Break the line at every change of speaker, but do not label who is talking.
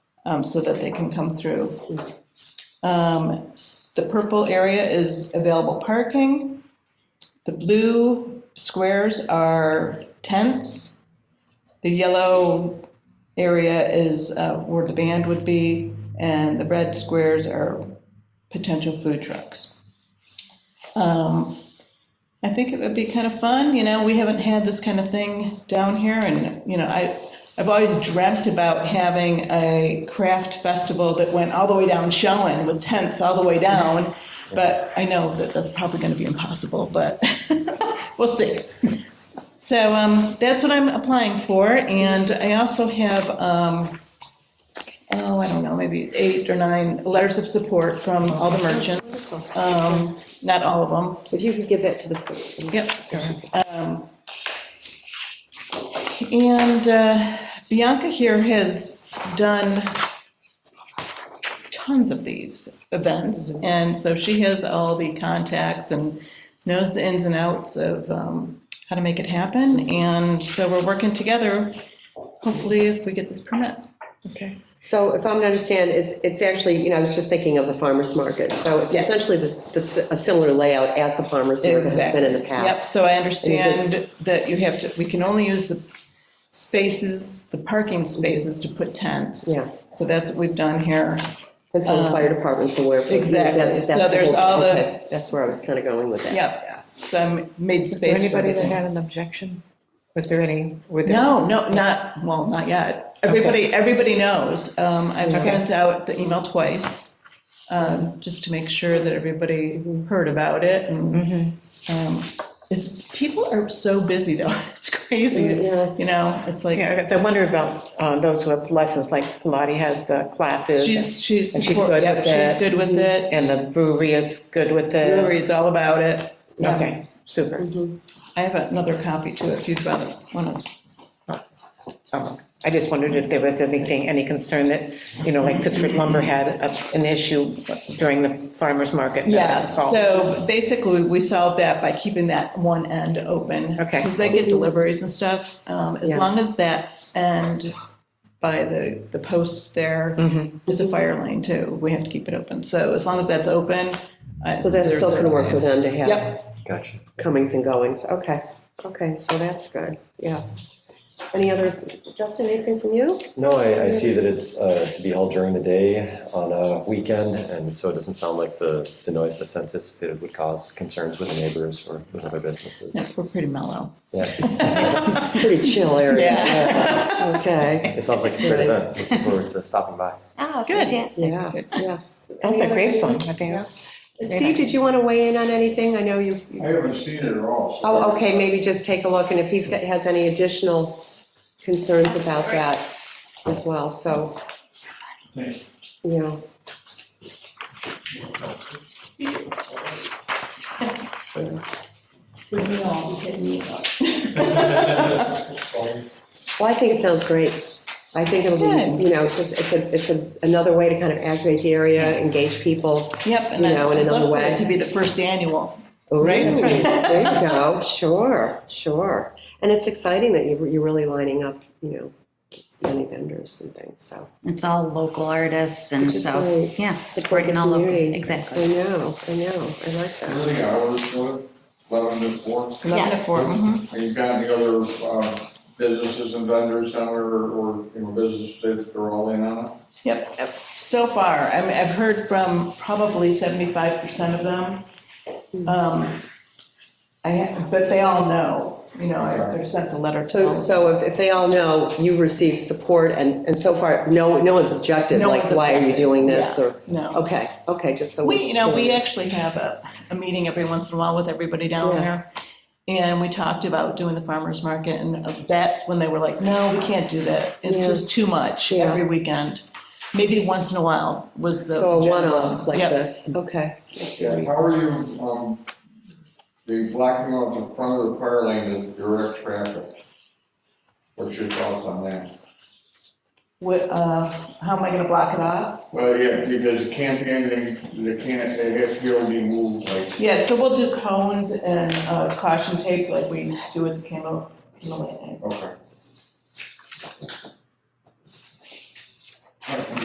um, so that they can come through. Um, s- The purple area is available parking. The blue squares are tents. The yellow area is uh, where the band would be, and the red squares are potential food trucks. Um, I think it would be kind of fun, you know, we haven't had this kind of thing down here, and, you know, I, I've always dreamt about having a craft festival that went all the way down Shellen with tents all the way down, but I know that that's probably gonna be impossible, but we'll see. So um, that's what I'm applying for, and I also have, um, oh, I don't know, maybe eight or nine letters of support from all the merchants. Um, Not all of them,
If you could give that to the clerk.
yep. Um, And uh, Bianca here has done tons of these events, and so she has all the contacts and knows the ins and outs of um, how to make it happen, and so we're working together, hopefully if we get this permit.
Okay. So if I'm to understand, it's, it's actually, you know, I was just thinking of the farmer's market. So it's
Yes.
essentially the, the, a similar layout as the farmer's market has been in the
Yep,
past.
so I
And
understand that you have to, we can only use the spaces, the parking spaces to put tents.
Yeah.
So that's what we've done here.
And so the fire department's aware. of it.
Uh, Exactly.
That's- that's
So there's
whole-
all the-
okay. That's where I was kind of going with that.
Yep, so I made
Is there
space for
anybody that
everything.
had an objection? Was there any? were there-
No, no, not, well, not yet. Everybody, everybody knows. Um, I've
Okay.
sent out the email twice, um, just to make sure that everybody heard about it. And
Mm-hmm.
um, It's, people are so busy though, it's crazy,
Yeah.
you know, it's like.
Yeah, I guess I wonder about uh, those who have lessons, like Pilates has the classes,
She's, she's,
And she's
support-
good
yep,
with
she's
it.
good with it.
and the brewery is good with the,
Lori's all about it. Yeah.
okay, super.
Mm-hmm. I have another copy too, if you'd rather, want to.
Um, I just wondered if there was anything, any concern that, you know, like Pittsford lumber had a- an issue during the farmer's market. that it
Yes,
solved.
so basically, we solved that by keeping that one end open.
Okay.
Because they get deliveries and stuff, um, as
Yeah.
long as that end by the, the posts there,
Mm-hmm.
Mhm.
it's a fire lane too, we have to keep it open, so as long as that's open. I-
So that's still
there's-
going to work for them to have
Yep,
Gotcha.
comings and goings. Okay, okay, so that's good, yeah. Any other, Justin, anything from you?
No, I, I see that it's uh, to be held during the day on a weekend, and so it doesn't sound like the, the noise that's anticipated would cause concerns with the neighbors or with other
Yeah,
businesses.
we're pretty mellow.
Yeah,
Pretty chill area.
Yeah.
Okay,
it sounds like a great event. Looking forward to stopping by.
Oh,
Good.
fantastic.
yeah,
Good.
yeah.
Also great fun, I
Yeah.
think.
Steve, did you want to weigh in on anything? I know you,
I haven't seen it at all. so-
oh, okay, maybe just take a look, and if he's, got- has any additional concerns about that as well, so, you know. Well, I think it sounds great. I think it'll
Good.
be, you know, it's just, it's a, it's a another way to kind of activate the area, engage people.
Yep, and
You know, in
I'd
another
love for
way.
it to be the first annual.
Right,
That's right.
There you go, sure, sure. And it's exciting that you- you're really lining up, you know, many vendors and things, so.
It's all local artists and
Which is
so,
great.
yeah,
the
supporting all of
community. I
Exactly.
know, I know, I like
What are
that.
the hours, what, eleven to four?
Eleven to
Yes.
four,
Mm-hmm.
mhm.
Have you got any other um, businesses and vendors down there or, or, you know, businesses that are all in on it?
Yep, yep. so far, I mean, I've heard from probably seventy-five percent of them. Um, I, ha- but they all know, you know, I- I've sent the letter to
So,
them.
so if- if they all know you receive support and, and so far, no, no one's objected,
No
like,
one's
why are you
objected.
doing this,
Yeah,
or,
No.
okay, okay, just so.
We, you know, we actually have a, a meeting every once in a while with everybody down
Yeah.
there. And we talked about doing the farmer's market and that's when they were like, no, we can't do that. It's
Yeah.
just too much
Yeah.
every weekend. Maybe once in a while was the.
So a
general-
one-off like
Yep.
this, okay.
Yeah, How are you, um, the blocking off the front of the fire lane to direct traffic? What's your thoughts on that?
What, uh, how am I gonna block it off?
Well, yeah, because it can't be anything, they can't, they have to be able to be moved, like,
Yeah, so we'll do cones and uh, caution tape like we do with the Camel, Camel Lane.
okay.